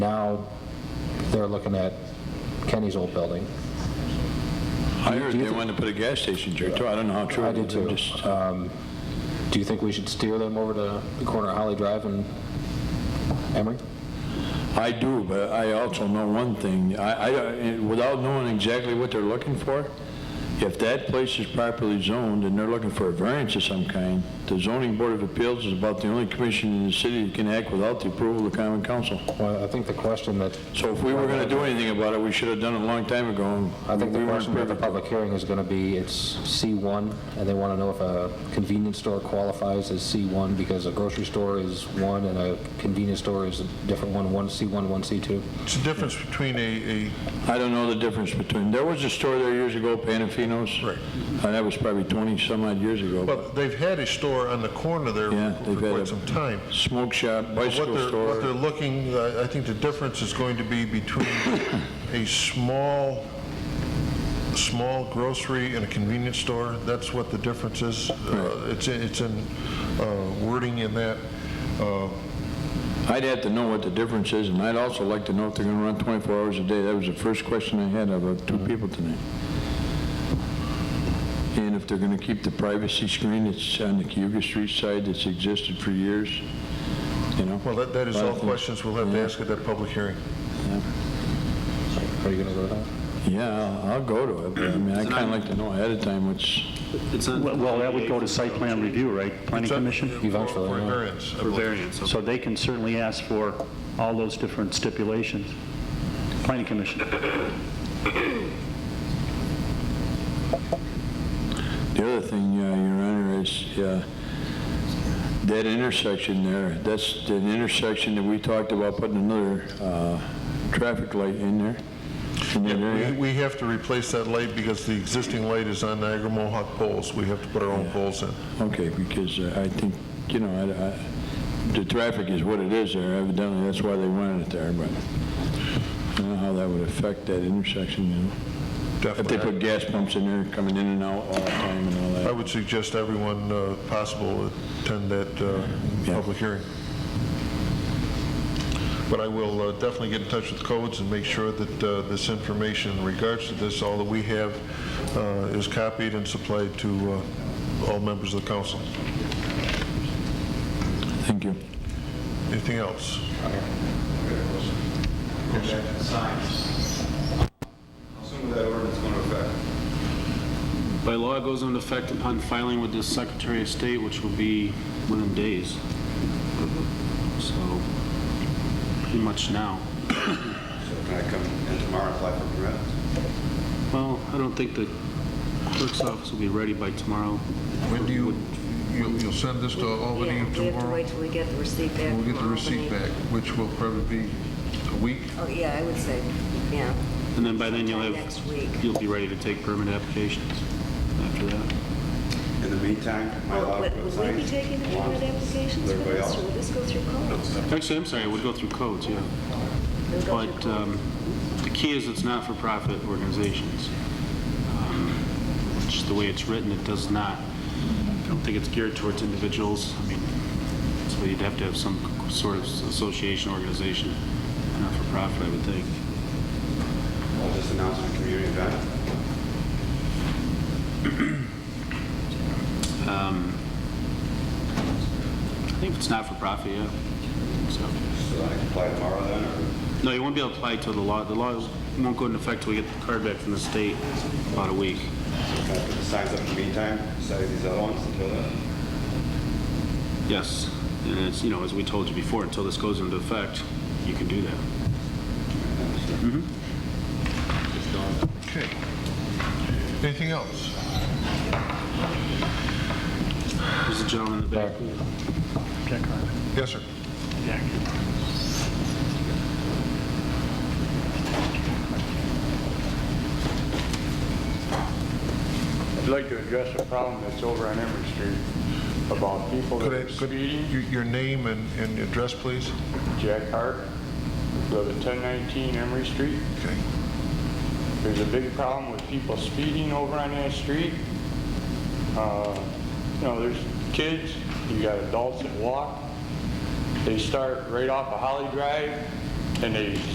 now they're looking at Kenny's old building. I heard they wanted to put a gas station there too. I don't know how true I it do is. Uh, I'm too. just- Um, Do you think we should steer them over to the corner of Holly Drive and Emery? I do, but I also know one thing. I, I, without knowing exactly what they're looking for, if that place is properly zoned and they're looking for a variance of some kind, the zoning board of appeals is about the only commission in the city that can act without the approval of the common council. Well, I think the question that, So if we were gonna do anything about it, we should have done it a long time ago. I think the We weren't question at the privy- public hearing is going to be, it's C1, and they want to know if a convenience store qualifies as C1 because a grocery store is one and a convenience store is a different one, one C1, one C2. It's the difference between a, a I don't know the difference between, there was a store there years ago, Panafino's. Right. And that was probably 20-some odd years ago. Well, they've had a store on the corner there Yeah, for they've had a- quite some time. Smoke shop, What bicycle they're, store. what they're looking, I I think the difference is going to be between a small, small grocery and a convenience store. That's what the difference is. Uh, It's, in- it's in uh, wording in that. Uh, I'd have to know what the difference is, and I'd also like to know if they're going to run 24 hours a day. That was the first question I had of uh, two Mm-hmm. people tonight. And if they're going to keep the privacy screen that's on the Cayuga Street side that's existed for years, you know? Well, that, that is all questions we'll have to ask at that public hearing. Are you going to go to that? Yeah, I'll- I'll go to it, but I mean, I kind of like to know ahead of time what's, Well, well, that would go to site plan review, right? Planning Commission? Eventually, uh, For yeah. variance. I believe. So they can certainly ask for all those different stipulations. Planning Commission. the other thing, uh, Your Honor, is uh, that intersection there, that's the intersection that we talked about putting another uh, traffic light in there. in that area. We, we have to replace that light because the existing light is on Niagara Mohawk poles. We have to put our own poles in. Okay, because uh, I think, you know, I- I- the traffic is what it is there, evidently, that's why they wanted it there, but I don't know how that would affect that intersection, you know? If they put Definitely. gas pumps in there, coming in and out all the time and all I that. would suggest everyone uh, possible attend that uh, Yeah. public hearing. But I will uh, definitely get in touch with codes and make sure that uh, this information in regards to this, all that we have, uh, is copied and supplied to uh, all members of the council. Thank you. Anything else? Signs. How soon will that ordinance go into effect? By law, it goes into effect upon filing with the Secretary of State, which will be within days. So, pretty much now. So can I come in tomorrow and apply for permit? Well, I don't think the clerk's office will be ready by tomorrow. When do you, you- you'll send this to Yeah, Albany We have to oh, tomorrow? wait till we get the receipt back We'll get the from receipt Albany. back, which will probably be a week. Oh, yeah, I would say, yeah. And then by then, you'll Next week. have, you'll be ready to take permit applications after that. In the meantime, am I allowed to Would put would we be signs? taking the along permit with applications for everybody this, else? or will this go through codes? Actually, I'm sorry, it would go through codes, yeah. It'll go through But codes. um, the key is it's not-for-profit organizations. Um, Just the way it's written, it does not, I don't think it's geared towards individuals. I mean, so you'd have to have some sort of association, organization, not-for-profit, I would think. I'll just announce it at a community event. I think if it's not-for-profit, yeah. So, So I can apply tomorrow then, or No, you won't be able to apply till the law, the law won't go into effect till we get the card back from the state about a week. can I put the signs up in the meantime, besides these other ones until then? Yes, and it's, you know, as we told you before, until this goes into effect, you can do that. Okay. Anything else? There's a gentleman in the back. Jack Harvey. Yes, sir. Jack. I'd like to address a problem that's over on Emery Street about people that Could are I, could, speeding. your your name and, and address, please? Jack Hart, go to 1019 Emery Street. Okay. There's a big problem with people speeding over on that street. Uh, You know, there's kids, you got adults that walk. They start right off of Holly Drive, and they